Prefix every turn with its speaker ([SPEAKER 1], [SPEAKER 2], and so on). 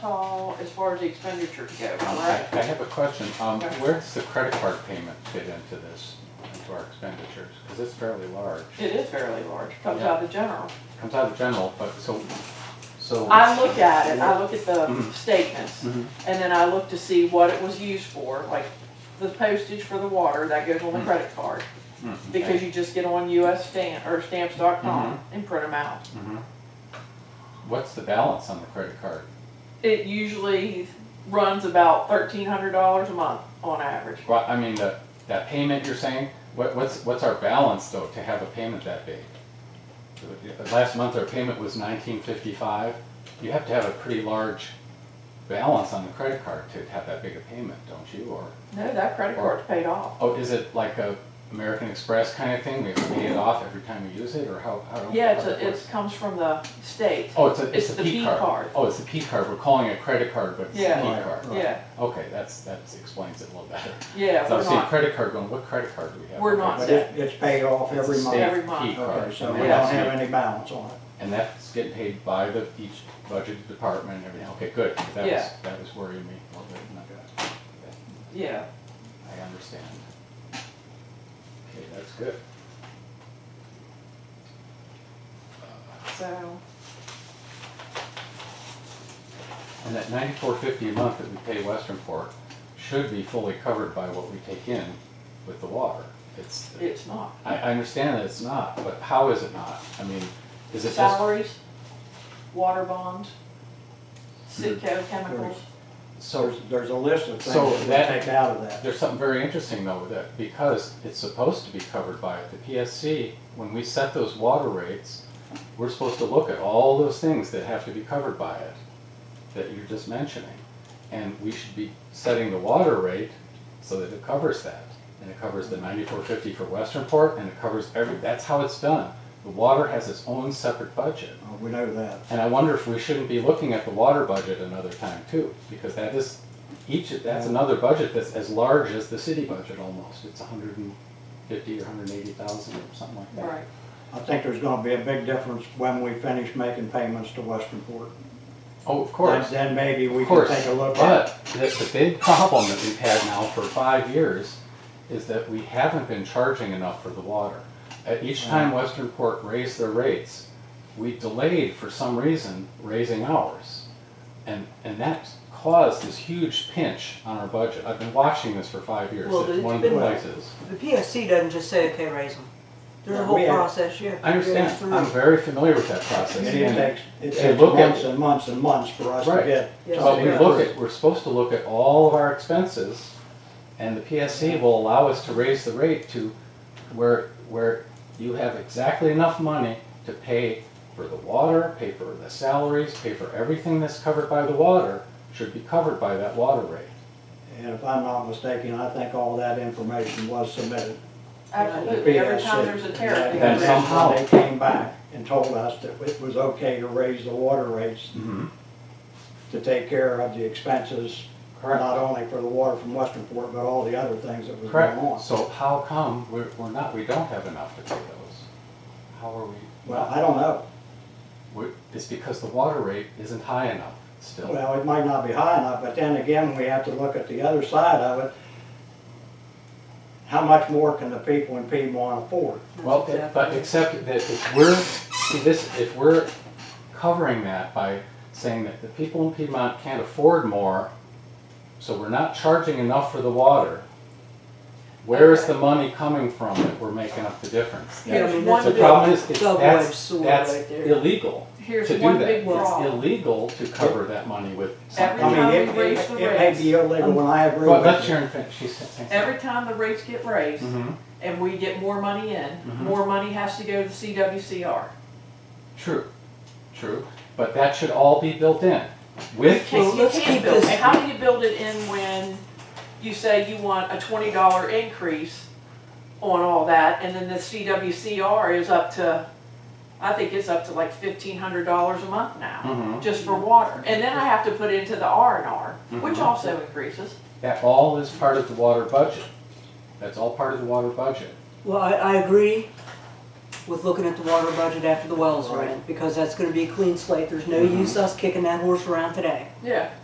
[SPEAKER 1] all as far as the expenditures go,
[SPEAKER 2] I
[SPEAKER 1] correct?
[SPEAKER 2] I have a question. Um,
[SPEAKER 1] Okay.
[SPEAKER 2] Where does the credit card payment fit into this, into our expenditures? Because it's fairly large.
[SPEAKER 1] It is fairly large, comes out of the general.
[SPEAKER 2] Comes out of general, but so, so.
[SPEAKER 1] I look at it, I look at the
[SPEAKER 2] Mhm.
[SPEAKER 1] statements,
[SPEAKER 2] Mhm.
[SPEAKER 1] and then I look to see what it was used for, like the postage for the water, that goes on the credit card.
[SPEAKER 2] Mm,
[SPEAKER 1] Because
[SPEAKER 2] okay.
[SPEAKER 1] you just get on US stamp, or stamps.com and print them out.
[SPEAKER 2] Mhm. What's the balance on the credit card?
[SPEAKER 1] It usually runs about thirteen hundred dollars a month on average.
[SPEAKER 2] Well, I mean, the, that payment you're saying, what, what's, what's our balance though to have a payment that big? Last month our payment was nineteen fifty-five. You have to have a pretty large balance on the credit card to have that big a payment, don't you, or?
[SPEAKER 1] No, that credit card's paid off.
[SPEAKER 2] Oh, is it like a American Express kind of thing? We have to pay it off every time we use it, or how? how
[SPEAKER 1] Yeah, it's,
[SPEAKER 2] how that
[SPEAKER 1] a- it's,
[SPEAKER 2] works?
[SPEAKER 1] comes from the state,
[SPEAKER 2] Oh, it's a,
[SPEAKER 1] it's
[SPEAKER 2] it's
[SPEAKER 1] the
[SPEAKER 2] a P
[SPEAKER 1] P
[SPEAKER 2] card.
[SPEAKER 1] card.
[SPEAKER 2] Oh, it's a P card. We're calling it a credit card, but it's a
[SPEAKER 1] Yeah.
[SPEAKER 2] P
[SPEAKER 3] Right,
[SPEAKER 2] card.
[SPEAKER 3] right.
[SPEAKER 1] yeah,
[SPEAKER 2] Okay, that's, that explains it a little better.
[SPEAKER 1] yeah,
[SPEAKER 2] So
[SPEAKER 1] we're
[SPEAKER 2] I'm seeing
[SPEAKER 1] not,
[SPEAKER 2] credit card going, what credit card do we have?
[SPEAKER 1] We're
[SPEAKER 2] Okay,
[SPEAKER 1] not
[SPEAKER 2] but-
[SPEAKER 3] But it, it's paid off
[SPEAKER 2] It's a
[SPEAKER 3] every
[SPEAKER 2] state
[SPEAKER 3] month.
[SPEAKER 1] Every month.
[SPEAKER 2] P card.
[SPEAKER 3] Okay, so
[SPEAKER 2] and
[SPEAKER 3] we don't
[SPEAKER 2] that's
[SPEAKER 3] have
[SPEAKER 2] it.
[SPEAKER 3] any balance on it.
[SPEAKER 2] And that's getting paid by the, each budget department and everything. Okay, good. 'cause That
[SPEAKER 1] Yeah.
[SPEAKER 2] was, that was worrying me a little bit. and I-
[SPEAKER 1] yeah.
[SPEAKER 2] I understand. Okay, that's good.
[SPEAKER 1] So,
[SPEAKER 2] And that ninety-four fifty a month that we pay Western Fork should be fully covered by what we take in with the water. It's,
[SPEAKER 1] it's not.
[SPEAKER 2] I, I understand that it's not, but how is it not? I mean, is it just,
[SPEAKER 1] Salaries, water bonds, Sitco chemicals,
[SPEAKER 2] so,
[SPEAKER 3] There's, there's a list of things
[SPEAKER 2] So that-
[SPEAKER 3] that we take out of that.
[SPEAKER 2] there's something very interesting though with that, because it's supposed to be covered by it. The PSC, when we set those water rates, we're supposed to look at all those things that have to be covered by it, that you're just mentioning. And we should be setting the water rate so that it covers that. And it covers the ninety-four fifty for Western Port, and it covers every, that's how it's done. The water has its own separate budget.
[SPEAKER 3] Uh, We know that.
[SPEAKER 2] And I wonder if we shouldn't be looking at the water budget another time too, because that is, each, that's another budget that's as large as the city budget almost. It's hundred and fifty or hundred and eighty thousand or something like that.
[SPEAKER 1] right,
[SPEAKER 3] I think there's gonna be a big difference when we finish making payments to Westernport.
[SPEAKER 2] Oh, of course.
[SPEAKER 3] Then then maybe we
[SPEAKER 2] Of
[SPEAKER 3] can
[SPEAKER 2] course,
[SPEAKER 3] take a look at.
[SPEAKER 2] but the, the big problem that we've had now for five years is that we haven't been charging enough for the water. At each time Western Port raised their rates, we delayed for some reason raising ours. And, and that caused this huge pinch on our budget. I've been watching this for five years,
[SPEAKER 4] Well,
[SPEAKER 2] it's
[SPEAKER 4] it's
[SPEAKER 2] one of the
[SPEAKER 4] been-
[SPEAKER 2] places.
[SPEAKER 4] The PSC doesn't just say, okay, raise them. There's a
[SPEAKER 3] Yeah,
[SPEAKER 4] whole
[SPEAKER 3] we have-
[SPEAKER 4] process, yeah.
[SPEAKER 2] I understand, I'm very familiar with that process.
[SPEAKER 3] And
[SPEAKER 2] and-
[SPEAKER 3] It takes, it
[SPEAKER 2] and
[SPEAKER 3] takes
[SPEAKER 2] look at-
[SPEAKER 3] months and months and months for us to
[SPEAKER 2] Right.
[SPEAKER 3] get.
[SPEAKER 4] Yes,
[SPEAKER 2] But
[SPEAKER 3] something
[SPEAKER 2] we
[SPEAKER 4] Yeah.
[SPEAKER 2] look
[SPEAKER 3] approved.
[SPEAKER 2] at, we're supposed to look at all of our expenses, and the PSC will allow us to raise the rate to where, where you have exactly enough money to pay for the water, pay for the salaries, pay for everything that's covered by the water, should be covered by that water rate.
[SPEAKER 3] And if I'm not mistaken, I think all that information was submitted.
[SPEAKER 1] absolutely, every time there's a tariff.
[SPEAKER 3] And
[SPEAKER 2] Then
[SPEAKER 1] increase-
[SPEAKER 2] some- somehow-
[SPEAKER 3] They came back and told us that it was okay to raise the water rates to take care of the expenses, not
[SPEAKER 2] Correct,
[SPEAKER 3] only for the water from Westernport, but all the other things that was going on.
[SPEAKER 2] correct. So how come we're, we're not, we don't have enough to pay those? How are we?
[SPEAKER 3] Well, I don't know.
[SPEAKER 2] We're- It's because the water rate isn't high enough still.
[SPEAKER 3] Well, it might not be high enough, but then again, we have to look at the other side of it. How much more can the people in Piedmont afford?
[SPEAKER 4] That's
[SPEAKER 2] Well, it-
[SPEAKER 4] exactly
[SPEAKER 2] but
[SPEAKER 4] it.
[SPEAKER 2] except that if we're, see this, if we're covering that by saying that the people in Piedmont can't afford more, so we're not charging enough for the water, where is the money coming from that we're making up the difference?
[SPEAKER 4] Yeah, I mean,
[SPEAKER 1] One
[SPEAKER 4] that's
[SPEAKER 2] The
[SPEAKER 4] a
[SPEAKER 1] big-
[SPEAKER 2] problem is, it's,
[SPEAKER 4] double-edged
[SPEAKER 2] that's,
[SPEAKER 4] sword
[SPEAKER 2] that's
[SPEAKER 4] right there.
[SPEAKER 2] illegal to
[SPEAKER 1] Here's
[SPEAKER 2] do
[SPEAKER 1] one
[SPEAKER 2] that.
[SPEAKER 1] big
[SPEAKER 2] It's
[SPEAKER 1] problem.
[SPEAKER 2] illegal to cover that money with
[SPEAKER 3] I mean,
[SPEAKER 2] something.
[SPEAKER 1] Every-
[SPEAKER 3] it, it it may be illegal, and I agree
[SPEAKER 2] Well, that's
[SPEAKER 3] with
[SPEAKER 2] your,
[SPEAKER 3] you.
[SPEAKER 2] infe- she's saying.
[SPEAKER 1] Every time the rates get raised
[SPEAKER 2] Mhm.
[SPEAKER 1] and we get more money in,
[SPEAKER 2] Mm-hmm.
[SPEAKER 1] more money has to go to CWCR.
[SPEAKER 2] True, true, but that should all be built in with
[SPEAKER 1] Can-
[SPEAKER 4] Well,
[SPEAKER 1] you
[SPEAKER 4] let's
[SPEAKER 1] can
[SPEAKER 4] keep
[SPEAKER 1] build-
[SPEAKER 4] this-
[SPEAKER 1] and How do you build it in when you say you want a twenty dollar increase on all that, and then the CWCR is up to, I think it's up to like fifteen hundred dollars a month now,
[SPEAKER 2] Mhm.
[SPEAKER 1] just for water, and then I have to put into the R and R, which
[SPEAKER 2] Mhm.
[SPEAKER 1] also increases.
[SPEAKER 2] That all is part of the water budget. That's all part of the water budget.
[SPEAKER 4] Well, I, I agree, with looking at the water budget after the wells are in, because that's gonna be a clean slate, there's no use us kicking that horse around today.
[SPEAKER 1] yeah.